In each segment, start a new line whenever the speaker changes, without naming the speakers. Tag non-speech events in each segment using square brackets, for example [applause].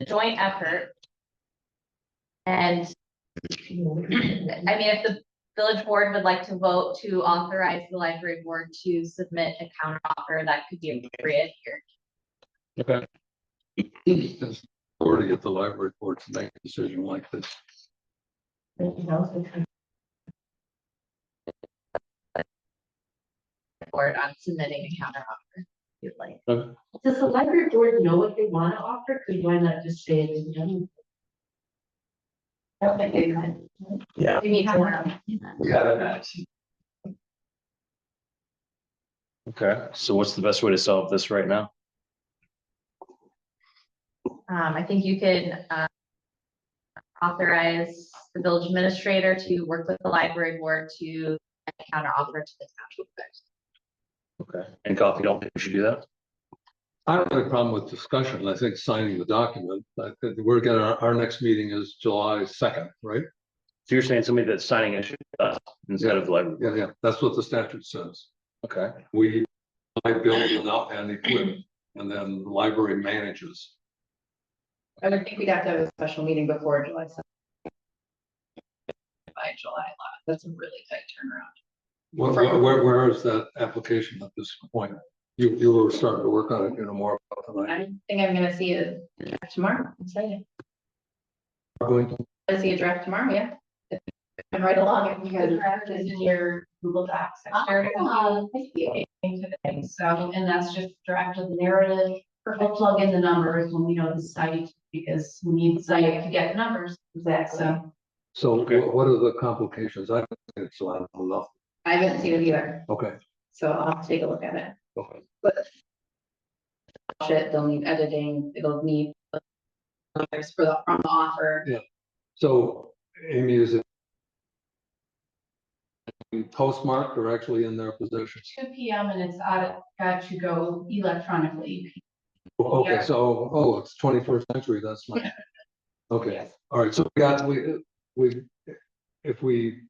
a joint effort. And [clears throat] I mean, if the village board would like to vote to authorize the library board to submit a counter offer, that could be appropriate here.
Okay. Or to get the library board to make a decision like this.
Board on submitting a counter offer. if You'd like.
Does the library board know what they want to offer? Could why not just say it in general?
Yeah.
We need to-
Okay.
So what's the best way to solve this right now?
Um, I think you can, uh. Authorize the village administrator to work with the library board to counter offer to the township.
Okay. And coffee, don't think we should do that?
I don't have a problem with discussion. I think signing the document, but we're gonna, our, our next meeting is July second, right?
So you're saying somebody that's signing it should be us instead of the library?
Yeah, yeah, that's what the statute says.
Okay.
We, I build it up and equip, and then the library manages.
I would think we'd have to have a special meeting before July seventh. By July eleventh, that's a really tight turnaround.
Where, where- where, where is that application at this point? You, you were starting to work on it, you know, more about tonight.
I think I'm gonna see a draft tomorrow, I'm excited,
We're going to-
I see a draft tomorrow, yeah. And right along, if you guys draft is in your Google Docs, I shared it with
Um,
you today, so, and that's just draft of the narrative.
We'll plug in the numbers when we know the site, because we need site to get numbers, exactly.
So,
So
Okay.
wh- what are the complications? I don't think it's a lot of love.
I haven't seen it either,
Okay.
so I'll have to take a look at it.
Okay.
Shit, they'll need editing, it'll need. There's for the, from the offer,
So Amy, is it postmarked or actually in their possession?
Two P M and it's out, got to go electronically.
Oh, Okay,
Yeah.
so, oh, it's twenty-first century, that's my, okay,
Yes.
all right, so we got, we, we, if we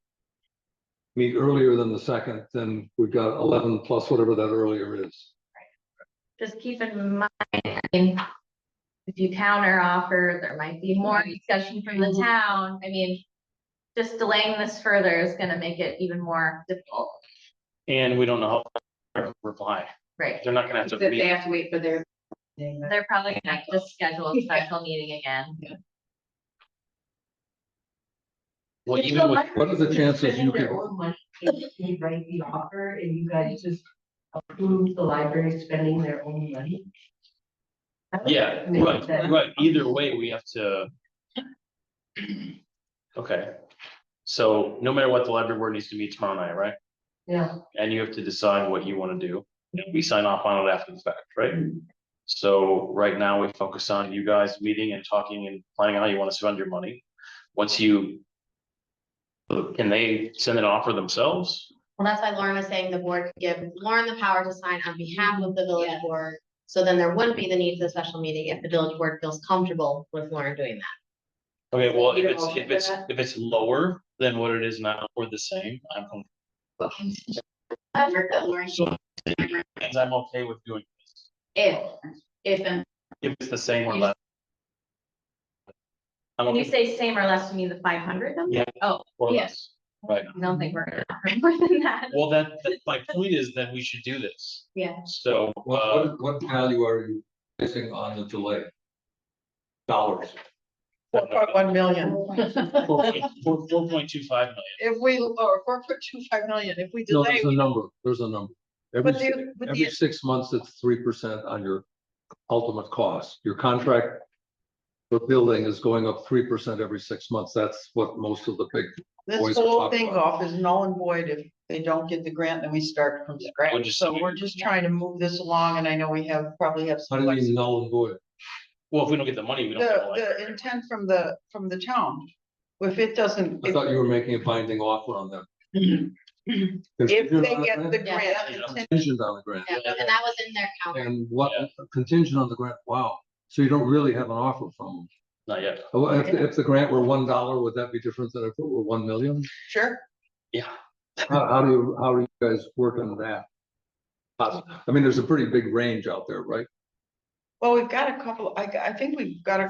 meet earlier than the second, then we've got eleven plus whatever that earlier is.
Just keep in mind, I mean, if you counter offer, there might be more discussion from
Mm-hmm.
the town. I mean, just delaying this further is gonna make it even more difficult,
And we don't know how reply.
right?
They're not gonna have
that
to
they
meet.
have to wait for their.
They're probably gonna have to schedule a special meeting again.
Well, even with,
what are the chances you
Their
can-
own money, They write the offer and you guys just approve the library spending their own money.
yeah,
I mean,
but,
that-
but either way, we have to. [clears throat] Okay. So no matter what, the library board needs to meet tomorrow night, right?
Yeah.
And you have to decide what you wanna do. And we sign off on it after the fact, right? So right now we focus on you guys meeting and talking and planning how you wanna spend your money. Once you. Can they send an offer themselves?
Well, that's why Lauren was saying the board could give Lauren the power to sign on behalf of the village
Yes.
board. So then there wouldn't be the need for the special meeting if the village board feels comfortable with Lauren doing that.
Okay, well, if
Either
it's,
or,
if it's,
yeah.
if it's lower than what it is now or the same, I'm, com-
I've heard that Lauren.
and I'm okay with doing this.
If, if and
If it's the same or less. I'm
When you
okay
say same or less, you mean the five hundred number?
Yeah.
Oh,
or
yeah.
less. Right.
I don't think we're gonna offer more than that.
Well, that, that- my point is that we should do this.
Yeah.
So, uh,
What, what, what value are you placing on the delay? Dollars.
Four
uh,
point one million.
[laughs]
four, four, four point two five million.
If we, or four point two five million, if we
No,
delay,
there's a number, there's a number. Every,
But
si-
the- but
every
the-
six months, it's three percent on your ultimate cost. Your contract for building is going up three percent every six months. That's what most of the big,
this
Boys are
whole
talking
thing
about
off is null and void if they don't get the grant, then we start from
we're
scratch.
just-
So we're just trying to move this along and I know we have, probably have
how
some.
do you mean
flexibility.
null and void?
Well, if we don't get the money, we don't. get the
The, the
library.
intent from the, from the town, if it doesn't,
I
if
thought you were making a binding offer on them.
if
Contingent
they
on
get the
grant?
grant,
Yeah.
intent-
Contingent on the grant.
Yeah, And that was in their counter.
And what, contingent on the grant, wow. So you don't really have an offer from
Not yet.
them. Oh, If, if the grant were one dollar, would that be different than if it were one million?
sure,
Yeah.
How, how do you, how are you guys working on that? Poss- I mean, there's a pretty big range out there, right?
well, we've got a couple, I, I think we've got a